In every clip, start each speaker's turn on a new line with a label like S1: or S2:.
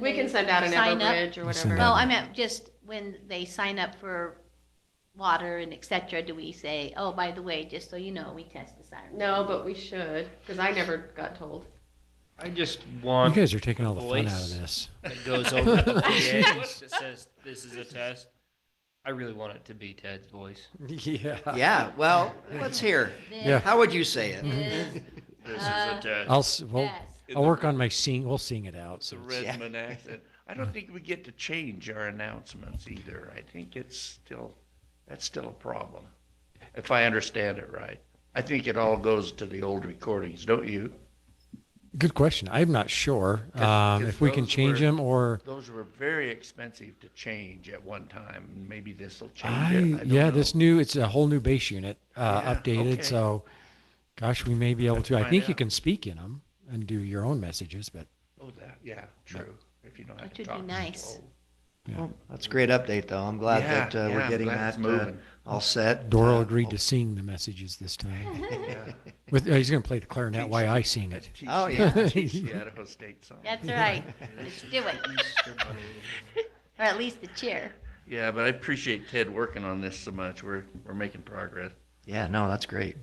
S1: We can send out an
S2: Sign up.
S1: Everbridge or
S3: We send
S1: whatever.
S2: Well, I meant just when they sign up for water and et cetera, do we say, oh, by the way, just so you know, we test the siren?
S1: No, but we should, because I never got told.
S4: I just
S3: You
S4: want
S3: guys are taking all the fun out of
S4: voice.
S3: this.
S4: that goes over the PA that says this is a test. I really want it to be Ted's voice.
S3: Yeah.
S5: Yeah, well, let's hear.
S3: Yeah.
S5: How would you say it?
S2: This is
S4: This
S2: Uh,
S4: is a test.
S3: I'll, s- we'll,
S2: best.
S6: In
S3: I'll
S6: the-
S3: work on my sing, we'll sing it out.
S6: It's a
S3: so it's-
S6: Redmond accent. I don't think we get to change our announcements either. I think it's still, that's still a problem, if I understand it right. I think it all goes to the old recordings, don't you?
S3: Good question. I'm not sure, um,
S6: Because
S3: if we can
S6: those
S3: change
S6: were-
S3: them or,
S6: Those were very expensive to change at one time. and Maybe this will change it.
S3: I,
S6: I don't
S3: yeah,
S6: know.
S3: this new, it's a whole new base unit, uh,
S6: Yeah, okay.
S3: updated. So gosh, we may be able
S6: Let's
S3: to, I
S6: find
S3: think you
S6: out.
S3: can speak in them and do your own messages, but
S6: Oh, that, yeah, true. If you don't have
S2: Which
S6: to
S2: would be
S6: talk. to Oh,
S2: nice.
S6: people.
S5: Well, That's a great update, though. I'm glad
S6: Yeah,
S5: that uh,
S6: yeah,
S5: we're
S6: I'm
S5: getting
S6: glad it's
S5: that uh,
S6: moving.
S5: all set.
S3: Doral
S5: Uh,
S3: agreed to sing the messages this time.
S6: Yeah.
S3: With, uh, he's going to play the clarinet
S6: Teach
S3: while
S6: them.
S3: I sing
S6: That's
S3: it.
S6: teach
S5: Oh,
S6: the-
S5: yeah.
S6: teach the Idaho State song.
S2: That's right, let's do it, or at least the chair.
S6: Yeah, but I appreciate Ted working on this so much. We're, we're making progress.
S5: Yeah, no, that's great.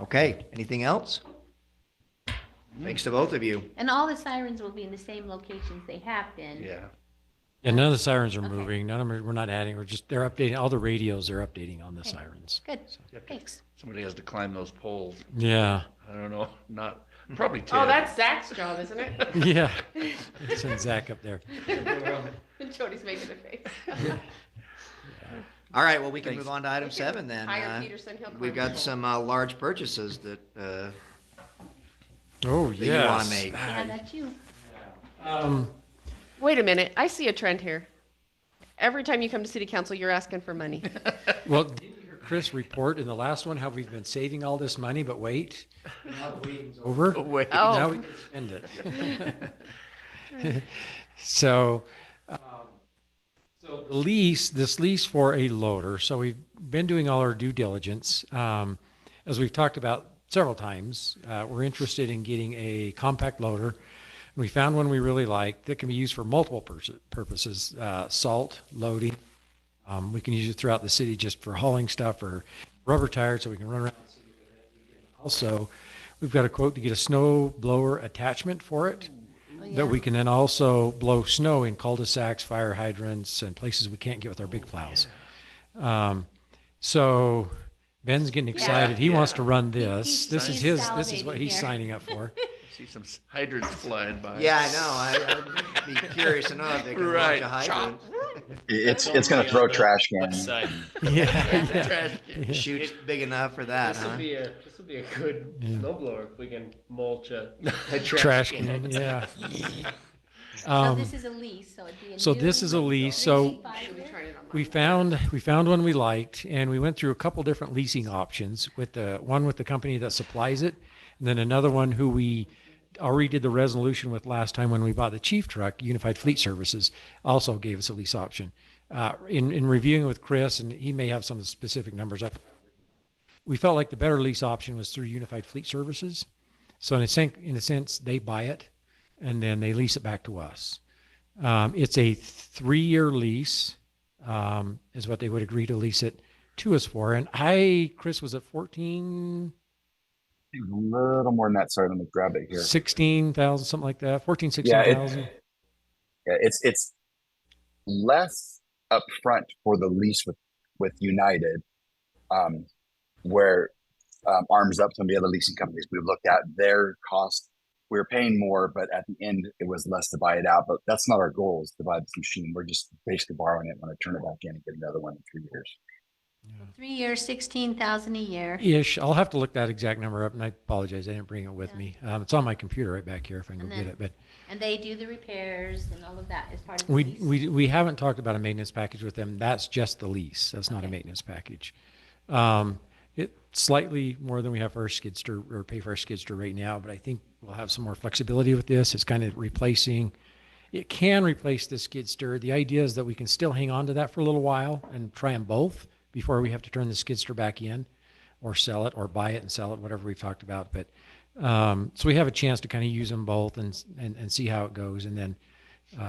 S5: Okay, anything else? Thanks to both of you.
S2: And all the sirens will be in the same locations they have been.
S6: Yeah.
S3: And none of the sirens are
S2: Okay.
S3: moving. None of them, are- we're not adding, we're just, they're updating, all the radios are updating on the
S2: Okay.
S3: sirens.
S2: Good,
S6: Yep.
S2: thanks.
S6: Somebody has to climb those poles.
S3: Yeah,
S6: I don't know. Not probably Ted.
S1: Oh, that's Zach's job, isn't it?
S3: yeah. Send Zach up there.
S1: Jody's making a face.
S5: All right, well, we can
S6: Thanks.
S5: move on to item seven then.
S1: Hire
S5: Uh,
S1: Peterson, he'll. climb
S5: We've got
S1: people.
S5: some uh, large purchases that, uh,
S3: Oh,
S5: that you want
S3: yes.
S5: to make.
S2: Yeah, that's you.
S3: Um,
S1: Wait a minute, I see a trend here. Every time you come to city council, you're asking for money.
S3: Well, did you hear Chris report in the last one how we've been saving all this money, but wait? now the waiting's Over?
S6: Oh, wait.
S1: Oh.
S3: Now we can spend it. So, um, so the lease, this lease for a loader, so we've been doing all our due diligence. Um, As we've talked about several times, uh, we're interested in getting a compact loader. We found one we really like that can be used for multiple pers- purposes, uh, salt, loading. Um, we can use it throughout the city just for hauling stuff or rubber tires so we can run around. the city with it. Also, we've got a quote to get a snow blower attachment for it
S2: Oh,
S3: that we can then also blow snow in cul-de-sacs, fire hydrants, and places we can't get with our big plows. Um, so Ben's getting excited. He wants to run this.
S2: He's-
S3: This is
S2: he's
S3: his, this is what
S2: salivating
S3: he's
S2: here.
S3: signing up for.
S6: See some s- hydrants flying by.
S5: Yeah, I know. I- I'd be curious to know if they can launch
S6: Right.
S5: a hydrant.
S7: It's
S4: That's
S7: it's going
S4: only
S7: to throw
S4: on the
S7: trash cans.
S4: Website.
S3: Yeah.
S6: Trash can.
S5: Shoots big enough for that,
S4: This will
S5: huh?
S4: be a, this will be a good
S3: Yeah.
S4: snowblower if we can mulch a.
S3: Trash can, yeah.
S2: So
S3: Um,
S2: this is a lease, so it'd be a
S3: so
S2: new
S3: this is a lease, so
S1: We
S2: lease.
S1: tried it on
S3: we
S1: mine.
S3: found, we found one we liked and we went through a couple different leasing options with the, one with the company that supplies it. And then another one who we already did the resolution with last time when we bought the chief truck, Unified Fleet Services, also gave us a lease option. Uh, in, in reviewing with Chris, and he may have some specific numbers up. We felt like the better lease option was through Unified Fleet Services. So in a sense, in a sense, they buy it and then they lease it back to us. Um, it's a three-year lease, um, is what they would agree to lease it to us for. And I, Chris, was at 14,
S7: A little more than that. Sorry, let me grab it here.
S3: 16,000, something like that, 14,
S7: Yeah, it-
S3: 16,000.
S7: Yeah, it's it's less upfront for the lease with with United, um, where um, Arms Up, some of the other leasing companies we've looked at, their cost we were paying more, but at the end it was less to buy it out. But that's not our goal is to buy this machine. We're just basically borrowing it, want to turn it back in and get another one in three years.
S2: Three years, sixteen thousand a year.
S3: Ish. I'll have to look that exact number up and I apologize. I didn't bring it with
S2: Yeah.
S3: me. Um, it's on my computer right back here if I can go
S2: And
S3: get
S2: then-
S3: it, but
S2: And they do the repairs and all of that as part of the
S3: we,
S2: lease?
S3: we, we haven't talked about a maintenance package with them. That's just the lease. That's not a
S2: Okay.
S3: maintenance package. Um, it slightly more than we have for our skidster or pay for our skidster right now, but I think we'll have some more flexibility with this. It's kind of replacing, it can replace the skid steer. The idea is that we can still hang on to that for a little while and try them both before we have to turn the skid steer back in or sell it or buy it and sell it, whatever we've talked about. But um, so we have a chance to kind of use them both and, and, and see how it goes. And then